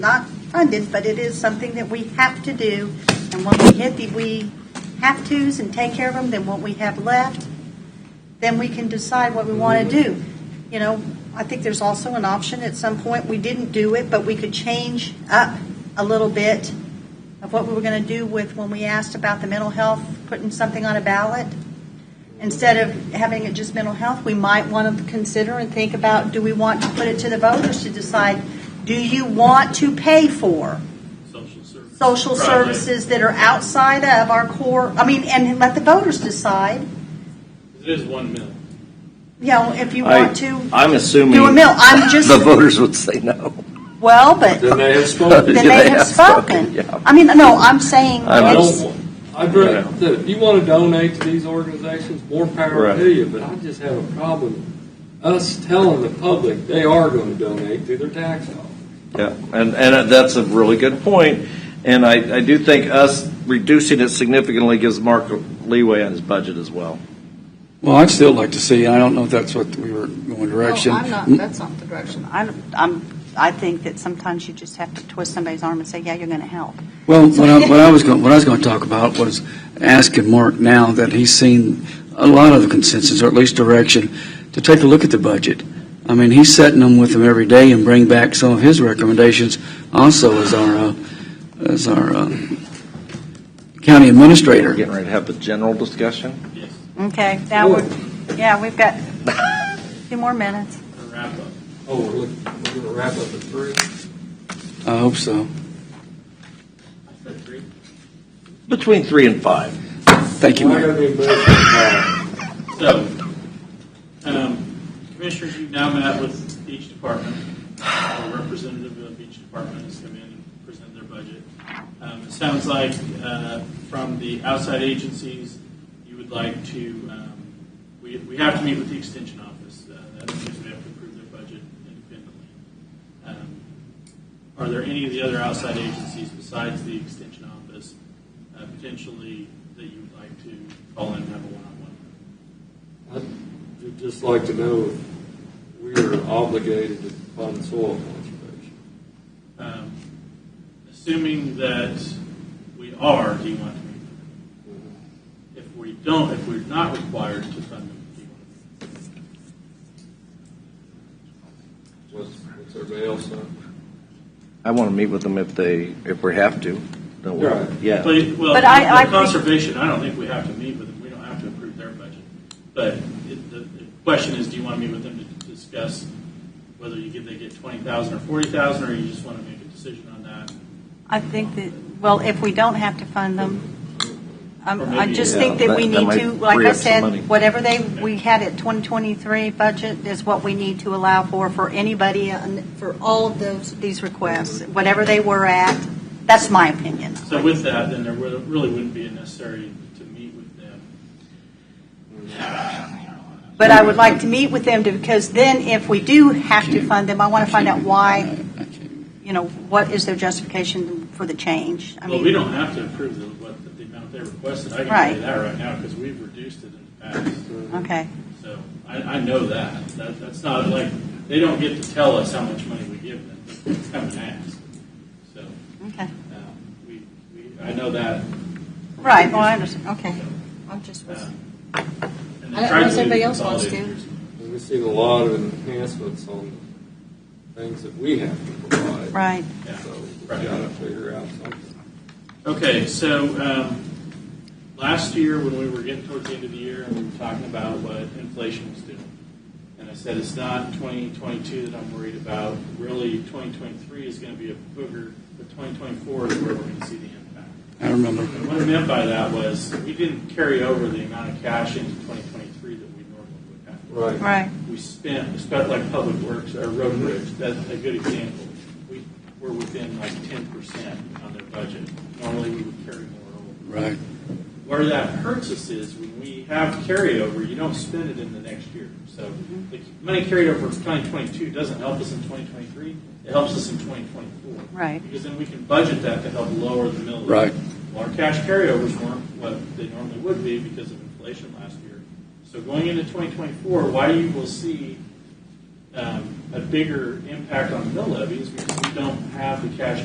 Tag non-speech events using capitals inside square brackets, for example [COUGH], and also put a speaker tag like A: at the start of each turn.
A: not funded, but it is something that we have to do. And when we hit the we have tos and take care of them, then what we have left, then we can decide what we want to do. You know, I think there's also an option at some point, we didn't do it, but we could change up a little bit of what we were going to do with when we asked about the mental health, putting something on a ballot. Instead of having it just mental health, we might want to consider and think about, do we want to put it to the voters to decide, do you want to pay for
B: social services.
A: social
B: Right.
A: services that are outside of our core, I mean, and let the voters decide,
B: It is one mill.
A: you know, if you
C: I-
A: want to
C: I'm assuming
A: do a mill.
C: [LAUGHS]
A: I'm just,
C: the voters would say no.
A: well,
D: [LAUGHS]
A: but
D: Then they have spoken.
A: then they have spoken.
C: Yeah.
A: I mean, no, I'm saying,
C: [LAUGHS] I
D: I
A: it's-
D: don't, want- I'd rather, look, if you want to donate to these organizations, more power
C: Right.
D: to you, but I just have a problem us telling the public they are going to donate through their tax dollars.
C: Yeah, and, and that's a really good point. And I, I do think us reducing it significantly gives Mark leeway on his budget as well.
E: Well, I'd still like to see, I don't know if that's what we were going direction.
F: No, Oh, I'm not, that's not the direction.
A: I'm, I'm, I think that sometimes you just have to twist somebody's arm and say, yeah, you're going to help.
E: Well, what I, what I was going, what I was going to talk about was asking Mark now that he's seen a lot of the consensus, or at least direction, to take a look at the budget. I mean, he's setting them with him every day and bring back some of his recommendations also as our, uh, as our uh, county
C: We're
E: administrator.
C: getting ready to have the general discussion.
B: Yes,
A: Okay, now, we're- yeah, we've got two more minutes.
B: to wrap up.
D: Oh, we're looking, we're going to wrap up at three?
E: I hope so.
B: I said three.
C: Between three and five.
E: Thank you,
D: Well, I
E: Mark.
D: gotta be embarrassed.
B: So, um, commissioners, you've now met with each department. A representative of each department has come in and presented their budget. Um, it sounds like, uh, from the outside agencies, you would like to, um, we, we have to meet with the extension office. Uh, that's because we have to approve their budget independently. Um, Are there any of the other outside agencies besides the extension office, uh, potentially that you would like to call in and have a one-on-one with?
D: I'd just like to know if we are obligated to fund soil conservation.
B: Um, Assuming that we are, do you want to meet them? If we don't, if we're not required to fund them, do you want to meet
D: What's, what's everybody else on?
C: I want to meet with them if they, if we have to. Don't we?
D: Right.
C: Yeah.
B: them? But, well,
A: But I- I
B: for
A: think-
B: conservation, I don't think we have to meet with them, we don't have to approve their budget. But it- the, the question is, do you want to meet with them to discuss whether you give, they get twenty thousand or forty thousand, or you just want to make a decision on that?
A: I think that, well, if we don't have to fund them, um,
B: Or
A: I
B: maybe,
A: just
C: yeah,
A: think that we
C: that- that
A: need
C: might
A: to, like
C: free
A: I
C: up some money.
A: said, whatever they, we had at 2023 budget is what we need to allow for, for anybody, on- for all of those, these requests, whatever they were at. That's my opinion.
B: So with that, then there really really wouldn't be a necessary to meet with them.
A: But I would like to meet with them to, because then if we do have to fund them, I want to find out why, you know, what is their justification for the change? I
B: Well, we
A: mean,
B: don't have to approve the, what, the- the amount they requested, I can tell
A: Right.
B: you that right now, because we've reduced it in the past,
A: okay,
B: so I, I know that. That, that's not like, they don't get to tell us how much money we give them, they come and ask. So,
A: okay.
B: um, we, we, I know that. from
A: Right, well, I
B: previous-
A: understand, okay.
F: I just was,
B: Um, and they
F: I don't
B: tried
F: know if
B: to do
F: anybody else wants
B: consolidated years.
D: And We've seen a lot of enhancements on things that we have to provide.
A: Right.
B: Yeah.
D: So we've
B: Right.
D: got to figure out something.
B: Okay, so um, last year, when we were getting towards the end of the year, and we were talking about what inflation was doing, and I said, it's not 2022 that I'm worried about, really 2023 is going to be a booger, but 2024 is where we're going to see the impact.
E: I remember.
B: And what I meant by that was, we didn't carry over the amount of cash into 2023 that we normally would
D: Right.
B: have
A: Right.
B: we spent, spent like public works or road and bridge, that's a good example. We were within like ten percent on their budget. Normally, we would carry more over.
E: Right.
B: Where that hurts us is when we have carryover, you don't spend it in the next year. So the money carried over from twenty twenty-two doesn't help us in twenty twenty-three, it helps us in twenty twenty-four.
A: Right.
B: Because then we can budget that to help lower the mill. levy.
E: Right.
B: Well, our cash carryovers weren't what they normally would be because of inflation last year. So going into 2024, why you will see um, a bigger impact on the mill levy is because we don't have the cash